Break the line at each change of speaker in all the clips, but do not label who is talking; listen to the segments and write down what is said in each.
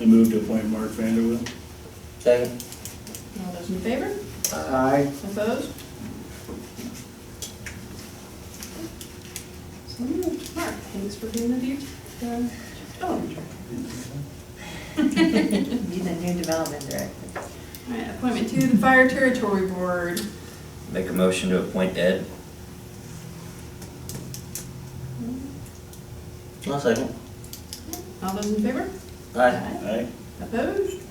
I move to appoint Mark Vanderwill.
Second.
All those in favor?
Aye.
Opposed? So moved. Mark, thanks for being with you. Um, Oh,
Be the new development director.
all right, appointment to the Fire Territory Board.
Make a motion to appoint Ed. I'll second.
All those in favor?
Aye.
Aye.
Opposed?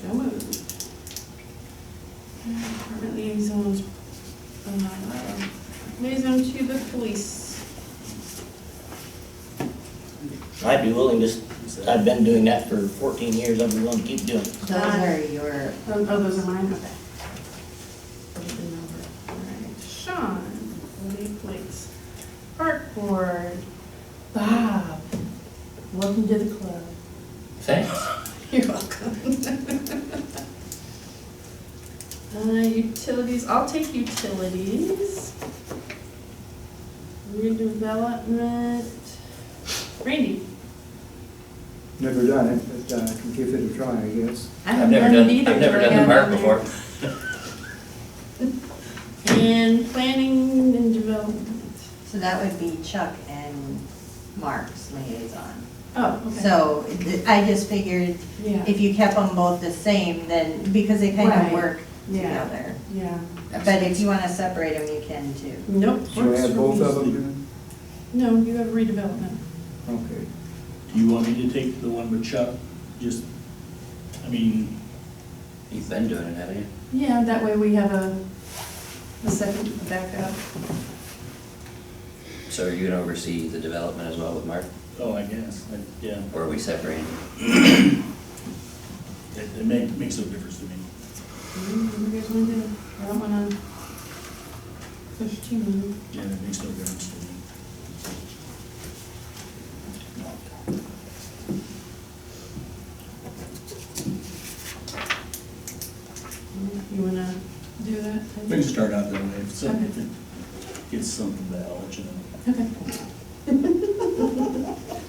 So moved. Department liaisons, uh, liaison to the police.
I'd be willing to, I've been doing that for fourteen years, I'd be willing to keep doing it.
Those are your,
Oh, oh, those are mine, okay. Those are the number. All right. Sean, Lee Place, Park Board, Bob, welcome to the club.
Thanks.
You're welcome. Uh, utilities, I'll take utilities. Redevelopment, Randy.
Never done it, but uh, I can give it a try, I guess.
I
I've
haven't
never
it
done,
either,
I've never
but I
done the
got
park
on there.
before.
And planning and development.
so that would be Chuck and Mark's liaison.
Oh, okay.
So th- I just figured
Yeah.
if you kept them both the same, then, because they kind
Right.
of work
Yeah.
together.
Yeah.
But if you want to separate them, you can too.
Nope.
Should I have both of them
No, you have redevelopment.
then? Okay.
Do you want me to take the one with Chuck? Just, I mean,
You've been doing it, haven't you?
Yeah, that way we have a, a second backup.
So are you gonna oversee the development as well with Mark,
oh, I guess, I- yeah,
or are we separating?
it, it ma- makes no difference to me.
Mm, You guys want to, I don't want to push too much.
Yeah, it makes no difference to me.
You want to do that?
We can start out that way. If something-
Okay.
if it gets something bad, I'll let you know.
Okay.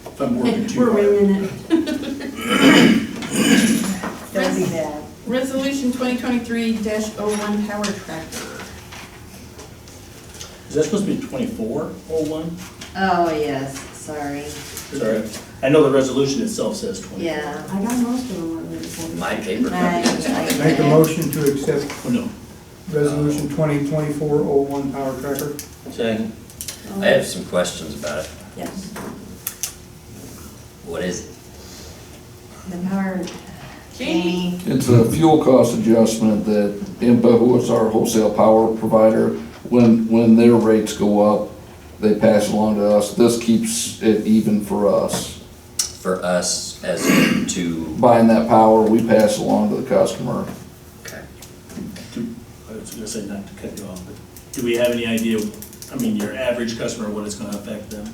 If I'm working too
We're
hard.
winging it.
Don't be bad.
Resolution 2023-01 power tractor.
Is that supposed to be twenty-four oh one?
Oh, yes, sorry.
Sorry, I know the resolution itself says twenty.
Yeah.
I got most of them already.
My paper
I-
copy.
I-
Make a motion to accept
Oh, no.
Resolution 2024-01 Power Tracker.
Second. I have some questions about it.
Yes.
What is it?
The power.
Jamie.
It's a fuel cost adjustment that IMPA, who is our wholesale power provider, when, when their rates go up, they pass along to us. This keeps it even for us.
for us as to?
Buying that power, we pass along to the customer.
Okay.
Do- I was gonna say not to cut you off, but do we have any idea, I mean, your average customer, what it's gonna affect them?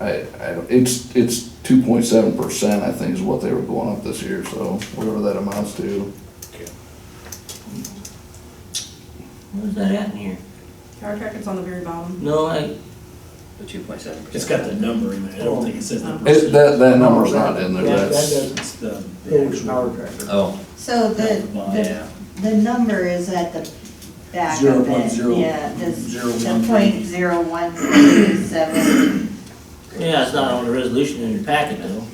I, I don't, it's, it's two point seven percent, I think, is what they were going up this year, so whatever that amounts to.
Where's that at in here?
Power tractor's on the very bottom.
No, I,
The two point seven percent.
It's got the number in there, I don't think it
Oh.
says the
It,
percent.
that, that number's not in there,
Yeah, that
that's.
does-
It's the, the
Old Power
actual.
Tracker.
Oh,
So the, the,
yeah.
the number is at the back of it.
Zero point zero-
Yeah, this,
zero
the
one three.
point zero one three seven.
yeah, it's not on the resolution in your packet though.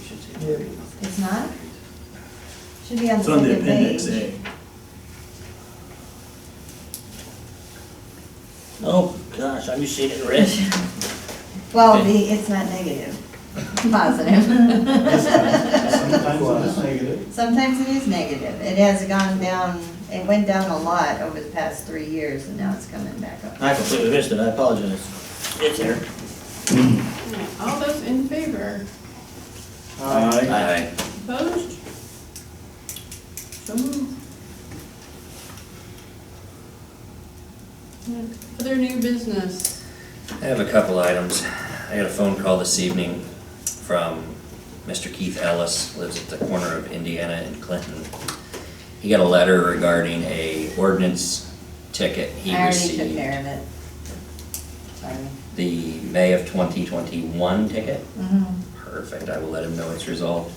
It's not? Should be on the
It's on the
second
appendix eh?
page.
A.
Oh, gosh, have you seen it red?
Well, the, it's not negative, positive.
Plus.
Sometimes it is negative. It has gone down, it went down a lot over the past three years and now it's coming back up.
I completely missed it, I apologize. It's there.
All those in favor?
Aye.
Opposed? So moved. Other new business.
I have a couple items. I got a phone call this evening from Mr. Keith Ellis, lives at the corner of Indiana and Clinton. He got a letter regarding a ordinance ticket he
I already
received.
took care of it. Sorry.
The May of twenty twenty-one ticket.
Mhm.
Her. perfect. I will let him know it's resolved.